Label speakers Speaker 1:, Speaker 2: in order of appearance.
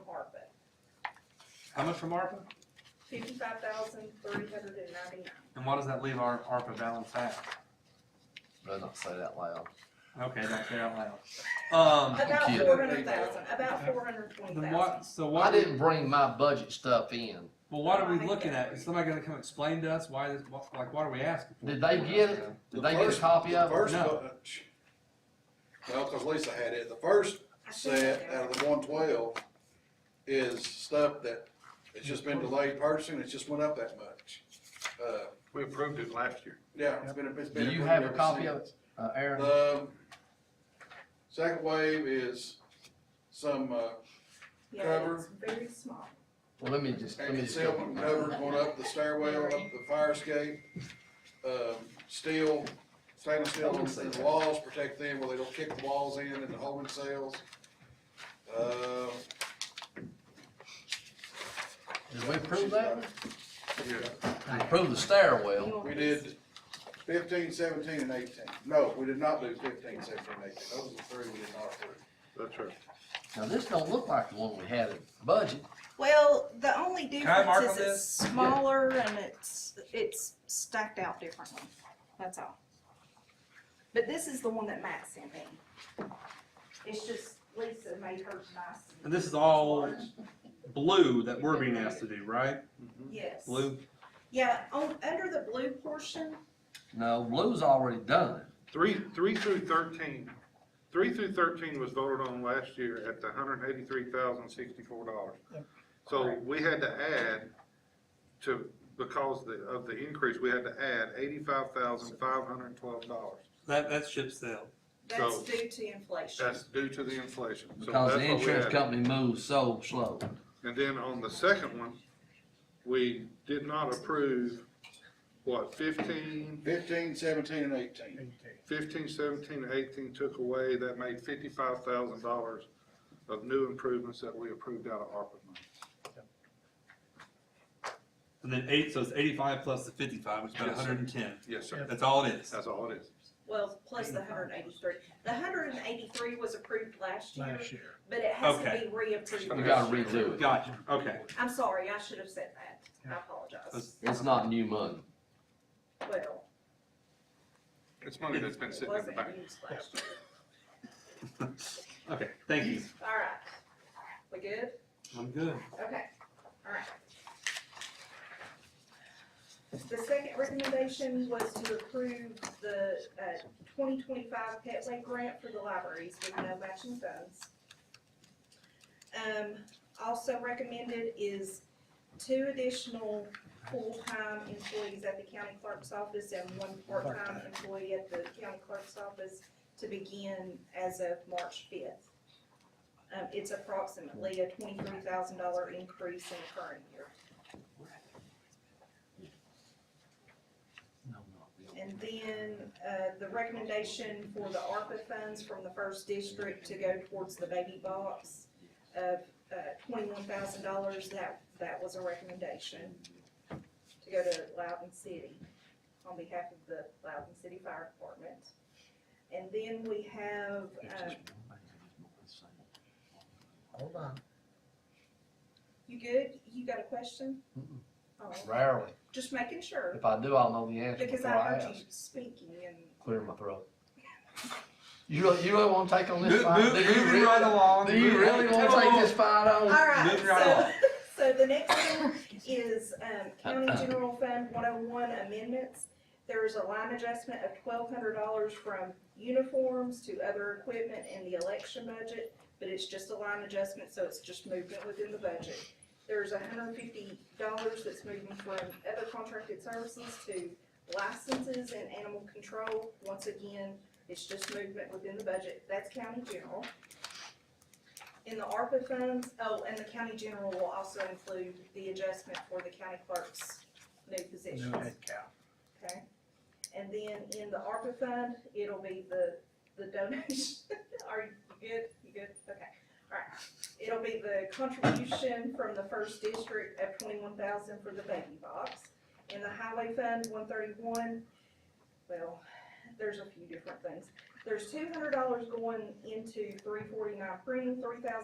Speaker 1: How much from ARPA?
Speaker 2: fifty-five thousand, three hundred and ninety-nine.
Speaker 1: And what does that leave our ARPA balance at?
Speaker 3: Better not say that loud.
Speaker 1: Okay, don't say out loud. Um,
Speaker 3: I'm
Speaker 2: About
Speaker 3: kidding.
Speaker 2: four hundred thousand, about four hundred and twenty
Speaker 1: then
Speaker 2: thousand.
Speaker 1: what, so
Speaker 3: I
Speaker 1: what,
Speaker 3: didn't bring my budget stuff in.
Speaker 1: well, what are we looking at? Is somebody gonna come explain to us why this, what- like, what are we asking for?
Speaker 3: Did they get it? Did they get a copy
Speaker 4: The
Speaker 3: of it?
Speaker 4: first
Speaker 1: No.
Speaker 4: bunch, well, cause Lisa had it, the first
Speaker 2: I think
Speaker 4: set
Speaker 2: they're-
Speaker 4: out of the one twelve is stuff that, it's just been delayed purchasing, it's just went up that much. Uh,
Speaker 5: We approved it last year.
Speaker 4: yeah, it's been, it's been.
Speaker 3: Do you
Speaker 4: approved
Speaker 3: have a
Speaker 4: ever
Speaker 3: copy
Speaker 4: since.
Speaker 3: of it, uh, Aaron?
Speaker 4: The second wave is some, uh,
Speaker 2: Yeah,
Speaker 4: cover.
Speaker 2: it's very small.
Speaker 3: Well, let me just, let
Speaker 4: And
Speaker 3: me just.
Speaker 4: concealment cover going up the stairwell, up the fire escape, um, steel, stainless steel in the walls, protect them where they don't kick the walls in and the holding cells. Uh,
Speaker 3: Did we approve that?
Speaker 5: Yeah.
Speaker 3: We approved the stairwell.
Speaker 4: we did fifteen, seventeen, and eighteen. No, we did not do fifteen, seventeen, and eighteen. Those are the three we did not approve.
Speaker 5: That's right.
Speaker 3: Now, this don't look like the one we had in the budget.
Speaker 6: Well, the only
Speaker 1: I mark
Speaker 6: difference is
Speaker 1: on
Speaker 6: it's smaller and it's, it's stacked out differently, that's all.
Speaker 2: But this is the one that Matt sent me. It's just Lisa made hers nice.
Speaker 1: And this is all blue that we're being asked to do, right?
Speaker 2: Yes.
Speaker 1: Blue?
Speaker 2: Yeah, on, under the blue portion,
Speaker 3: No, blue's already done.
Speaker 5: Three, three through thirteen, three through thirteen was voted on last year at the hundred and eighty-three thousand sixty-four dollars. So we had to add to, because the, of the increase, we had to add eighty-five thousand five hundred and twelve dollars.
Speaker 1: That, that's ship sale.
Speaker 2: that's
Speaker 5: So-
Speaker 2: due to inflation.
Speaker 5: That's due to the inflation. So
Speaker 3: Because the
Speaker 5: that's what we
Speaker 3: insurance
Speaker 5: added.
Speaker 3: company moves so slow.
Speaker 5: And then on the second one, we did not approve, what, fifteen,
Speaker 4: Fifteen, seventeen, and eighteen.
Speaker 5: fifteen, seventeen, eighteen took away, that made fifty-five thousand dollars of new improvements that we approved out of ARPA money.
Speaker 1: And then eight, so it's eighty-five plus the fifty-five, which is about
Speaker 5: Yes, sir.
Speaker 1: hundred and ten.
Speaker 5: Yes, sir.
Speaker 1: That's all it is.
Speaker 5: That's all it is.
Speaker 2: Well, plus the hundred and eighty-three. The hundred and eighty-three was approved last year,
Speaker 7: last year.
Speaker 2: but it has to
Speaker 1: Okay.
Speaker 2: be reapproved.
Speaker 3: We gotta redo it.
Speaker 1: Gotcha, okay.
Speaker 2: I'm sorry, I should have said that. I apologize.
Speaker 1: That's-
Speaker 3: It's not new money.
Speaker 2: Well,
Speaker 5: It's money that's been
Speaker 2: it
Speaker 5: sitting in the
Speaker 2: wasn't
Speaker 5: bank.
Speaker 2: used last year.
Speaker 1: Okay, thank you.
Speaker 2: All right. We good?
Speaker 1: I'm good.
Speaker 2: Okay, all right. The second recommendation was to approve the uh, twenty twenty-five Petway grant for the libraries with no matching funds. Um, also recommended is two additional full-time employees at the county clerk's office and one part-time employee at the county clerk's office to begin as of March fifth. Um, it's approximately a twenty-three thousand dollar increase in the current year. And then, uh, the recommendation for the ARPA funds from the first district to go towards the baby box of, uh, twenty-one thousand dollars, that, that was a recommendation to go to Loudon City on behalf of the Loudon City Fire Department. And then we have, uh,
Speaker 3: Hold on.
Speaker 2: you good? You got a question?
Speaker 3: Mm-mm.
Speaker 2: Oh,
Speaker 3: Rarely.
Speaker 2: just making sure,
Speaker 3: If I do, I'll know the answer
Speaker 2: because
Speaker 3: before
Speaker 2: I
Speaker 3: I
Speaker 2: heard
Speaker 3: ask.
Speaker 2: you speaking and,
Speaker 3: Clear my throat. You really, you really wanna take on this
Speaker 1: Move-
Speaker 3: fight?
Speaker 1: move-
Speaker 3: Do you
Speaker 1: moving
Speaker 3: really-
Speaker 1: right along.
Speaker 3: Do you
Speaker 1: Moving
Speaker 3: really
Speaker 1: right
Speaker 3: wanna
Speaker 1: along.
Speaker 3: take this fight
Speaker 2: all
Speaker 3: on?
Speaker 2: right,
Speaker 1: Moving right along.
Speaker 2: so, so the next one is, um, County General Fund one oh one amendments. There is a line adjustment of twelve hundred dollars from uniforms to other equipment in the election budget, but it's just a line adjustment, so it's just movement within the budget. There's hundred and fifty dollars that's moving from other contracted services to licenses and animal control. Once again, it's just movement within the budget, that's County General. In the ARPA funds, oh, and the county general will also include the adjustment for the county clerk's new
Speaker 7: New
Speaker 2: positions,
Speaker 7: head count.
Speaker 2: okay? And then in the ARPA fund, it'll be the, the donation, are you good, you good, okay, alright. It'll be the contribution from the first district of twenty-one thousand for the baby box. In the highway fund, one thirty-one, well, there's a few different things. There's two hundred dollars going into three forty-nine printing, three thousand